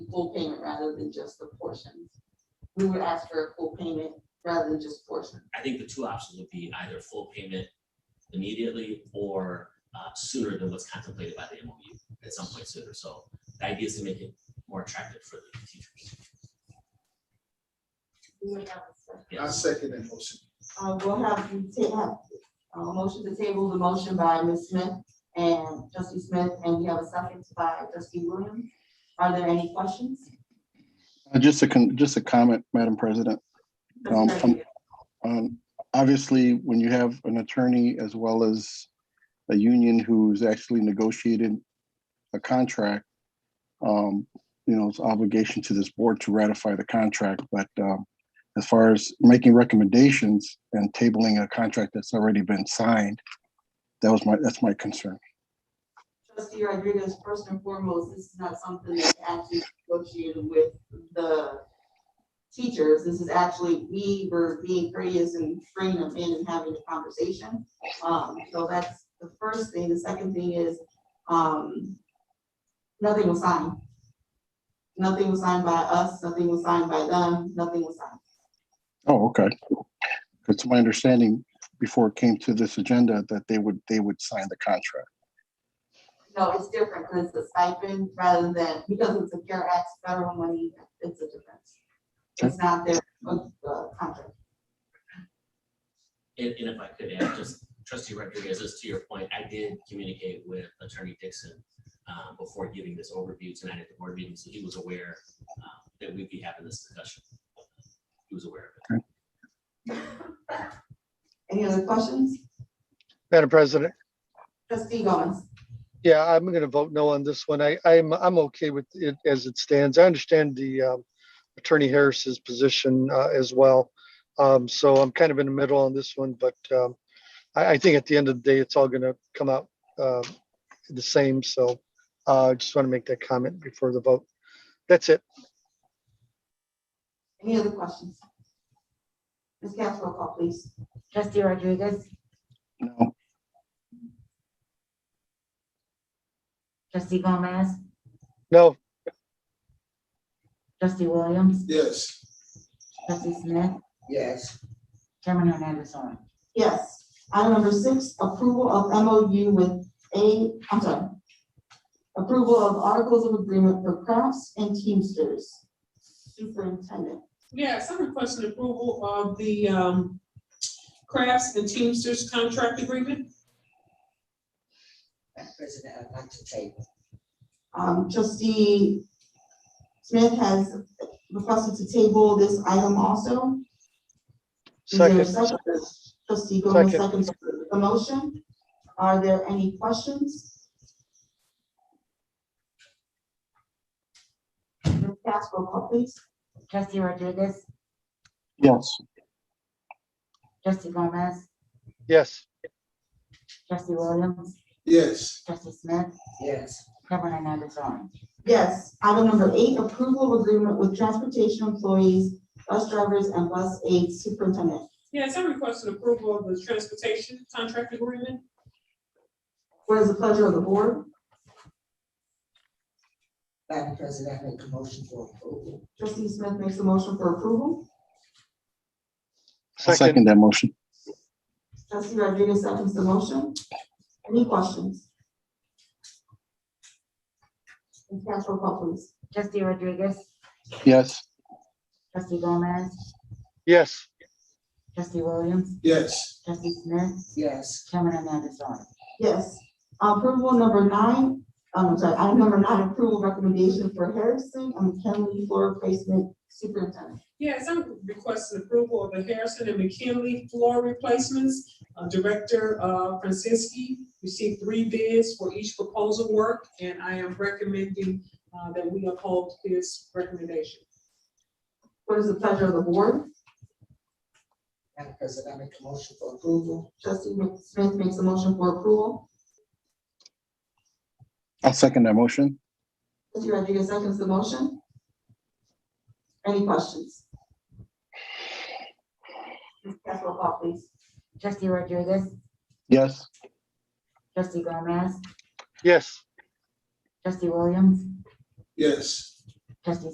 full payment rather than just the portions. We would ask for a full payment rather than just portions. I think the two options would be either full payment immediately or uh, sooner than what's contemplated by the MOU at some point sooner. So the idea is to make it more attractive for the teachers. I Yes. second that motion. Uh, we'll have you ta- have, uh, motion to table the motion by Ms. Smith and trustee Smith, and we have a second by trustee Williams. Are there any questions? Uh, Just a, con- just a comment, Madam President. Um, um, Um, Obviously, when you have an attorney as well as a union who's actually negotiated a contract, um, you know, it's obligation to this board to ratify the contract, but um, as far as making recommendations and tabling a contract that's already been signed, that was my, that's my concern. Trustee Rodriguez, first and foremost, this is not something that's actually negotiated with the teachers. This is actually, we were being courteous and bringing them in and having the conversation. Um, so that's the first thing. The second thing is, um, nothing was signed. Nothing was signed by us, nothing was signed by them, nothing was signed. Oh, okay. It's my understanding before it came to this agenda that they would, they would sign the contract. No, it's different because it's a stipend rather than, because it's a CARE Act federal money, it's a difference. It's not their, uh, contract. And, and if I could add, just trustee Rodriguez, just to your point, I did communicate with attorney Dixon uh, before giving this overview tonight at the board meeting, so he was aware uh, that we'd be having this discussion. He was aware of it. Any other questions? Madam President, Trustee Gomez? yeah, I'm going to vote no on this one. I, I'm, I'm okay with it as it stands. I understand the um, Attorney Harris's position uh, as well. Um, So I'm kind of in the middle on this one, but um, I, I think at the end of the day, it's all going to come out uh, the same. So uh, I just want to make that comment before the vote. That's it. Any other questions? Ms. Cass, roll call, please. Trustee Rodriguez, No, trustee Gomez, No, trustee Williams, Yes. trustee Smith, Yes. Chairman Hernandez on. Yes. Item number six, approval of MOU with A, I'm sorry. Approval of articles of agreement for crafts and Teamsters. Superintendent. Yes, I'm requesting approval of the um, Crafts and Teamsters contract agreement. Madam President, I'd like to table. Um, trustee Smith has requested to table this item also. Is there a second, Trustee Gomez Second. seconds the motion. Are there any questions? Ms. Cass, roll call, please. Trustee Rodriguez, yes, trustee Gomez, yes, trustee Williams, Yes. trustee Smith, Yes, Chairman Hernandez on. Yes, item number eight, approval of agreement with transportation employees, bus drivers, and bus aid superintendent. Yes, I'm requesting approval of the transportation contract agreement. What is the pleasure of the board? Madam President, I make a motion for approval. Trustee Smith makes a motion for approval. I'll second, second that motion. Trustee Rodriguez seconds the motion. Any questions? Ms. Cass, roll call, please. Trustee Rodriguez, Yes, trustee Gomez, yes, trustee Williams, Yes. trustee Smith, Yes, Chairman Hernandez on. Yes. Approval number nine, um, I'm sorry, item number nine, approval recommendation for Harrison and McKinley floor replacement superintendent. Yes, I'm requesting approval of the Harrison and McKinley floor replacements. Uh, Director uh, Francisci received three bids for each proposal work, and I am recommending uh, that we uphold his recommendation. What is the pleasure of the board? Madam President, I make a motion for approval. Trustee Mc- Smith makes a motion for approval. I'll second that motion. Trustee Rodriguez seconds the motion. Any questions? Ms. Cass, roll call, please. Trustee Rodriguez, Yes, trustee Gomez, yes, trustee Williams, Yes. Trustee